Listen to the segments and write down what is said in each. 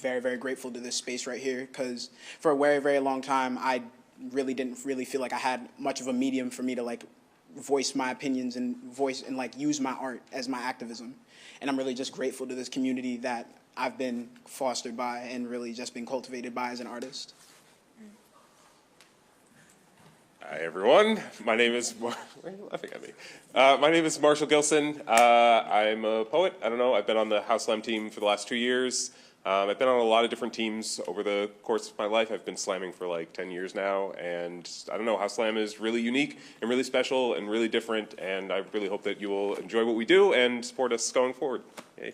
very, very grateful to this space right here because for a very, very long time, I really didn't really feel like I had much of a medium for me to like voice my opinions and voice and like use my art as my activism. And I'm really just grateful to this community that I've been fostered by and really just been cultivated by as an artist. Hi, everyone. My name is. Mar- Why are you laughing at me? Uh, my name is Marshall Gilson. Uh, I'm a poet. I don't know. I've been on the House Slam team for the last two years. Um, I've been on a lot of different teams over the course of my life. I've been slamming for like 10 years now. And I don't know, House Slam is really unique and really special and really different. And I really hope that you will enjoy what we do and support us going forward. Yay.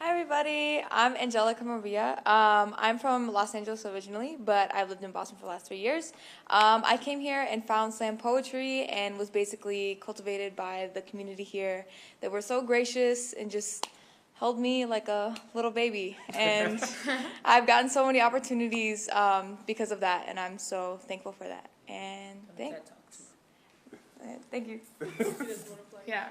Hi, everybody. I'm Angelica Maria. Um, I'm from Los Angeles originally, but I've lived in Boston for the last three years. Um, I came here and found slam poetry and was basically cultivated by the community here that were so gracious and just held me like a little baby. And I've gotten so many opportunities um, because of that, and I'm so thankful for that. And thank, uh, thank you. Yeah.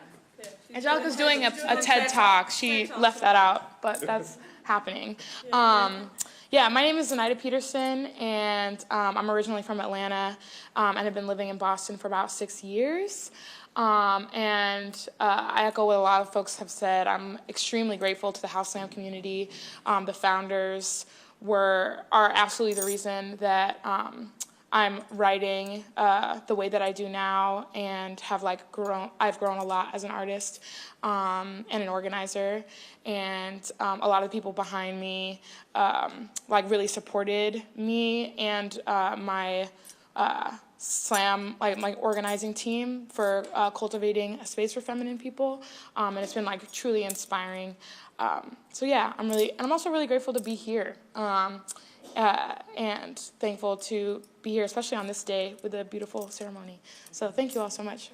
Angelica's doing a, a TED Talk. She left that out, but that's happening. Um, yeah, my name is Zenaida Peterson, and um, I'm originally from Atlanta, um, and have been living in Boston for about six years. Um, and uh, I echo what a lot of folks have said. I'm extremely grateful to the House Slam community. Um, the founders were are absolutely the reason that um, I'm writing uh, the way that I do now, and have like grown. I've grown a lot as an artist um, and an organizer, and um, a lot of the people behind me um, like really supported me and uh, my uh, slam like my organizing team for uh, cultivating a space for feminine people um, and it's been like truly inspiring um, so yeah i'm really and i'm also really grateful to be here um, uh, and thankful to be here especially on this day with a beautiful ceremony so thank you all so much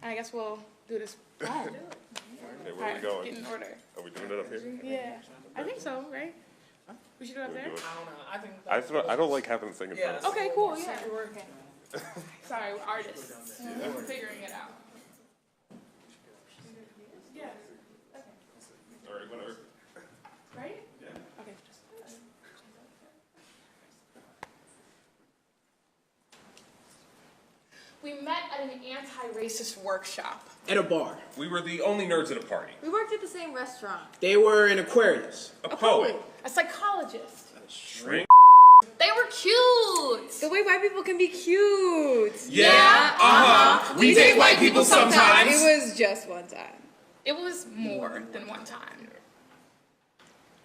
and i guess we'll do this all Okay, where are we right, going? get in order Are we doing it up here? yeah i think so right we should do it up there I think I don't, I don't like having this thing in front of us. okay cool yeah Sorry, we're artists. We're figuring it out. Yes, All right, whatever. right? Yeah. Okay. We met at an anti-racist workshop. At a bar, We were the only nerds at a party. We worked at the same restaurant. they were in Aquarius. A, poet. A psychologist. Drink. They were cute. The way white people can be cute. Yeah, uh-huh. We date white people sometimes. It was just one time. It was more than one time.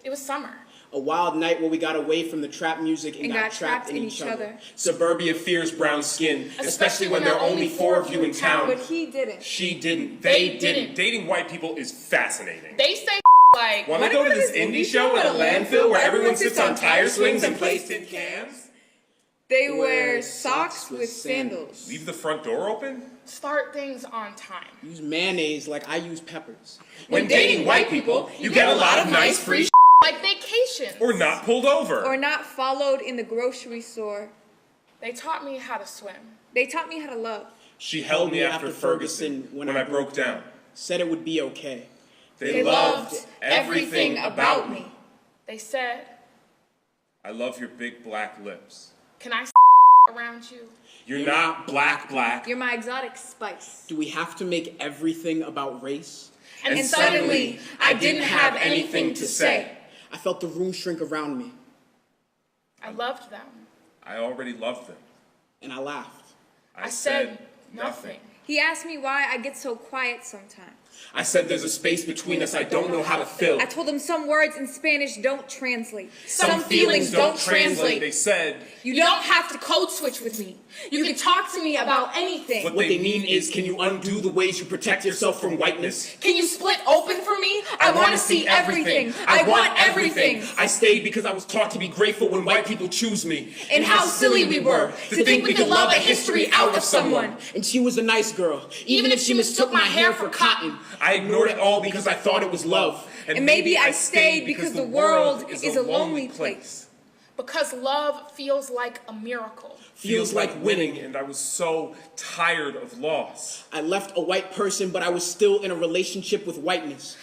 It was summer. A wild night where we got away from the trap music and, And got, got trapped, trapped in, in each each other. other. Suburbia fears brown skin, especially when there are only four of you in But town. he didn't. She didn't. They They didn't. didn't. Dating white people is fascinating. They say like Want to go to this indie show at a landfill where everyone sits on tire swings and plays tin cans? They wear socks with sandals. Leave the front door open? start things on time. Use mayonnaise like I use peppers. When dating white people, you get a lot of nice free sh- like vacations. or not pulled Or over. not followed in the grocery store. They taught me how to swim. They taught me how to love. She held me after Ferguson when I broke down. Said it would be okay. They loved everything about me. They said, I love your big black lips. "Can I s- around you?" You're not black, black. You're my exotic spice. Do we have to make everything about race? And, suddenly, I didn't have anything to say. I felt the room shrink around me, I loved them. I already loved them. and I laughed. I, I said nothing. He asked me why I get so quiet sometimes. I said there's a space between us I don't know how to fill. I told him some words in Spanish don't translate. They said You don't have to code switch with me. You can talk to me about anything. what, they mean is can you undo the ways you protect yourself from whiteness? Can you split open for me? I, wanna want to see everything. I want everything. I stayed because I was taught to be grateful when white people choose me. And how silly we were to think we could love a history out of someone. And she was a nice girl, even, if she mistook my hair for cotton. I ignored it all because I thought it was love. And maybe I stayed because the world is a lonely place. Because love feels like a miracle. Feels like winning, and I was so tired of loss. I left a white person, but I was still in a relationship with whiteness.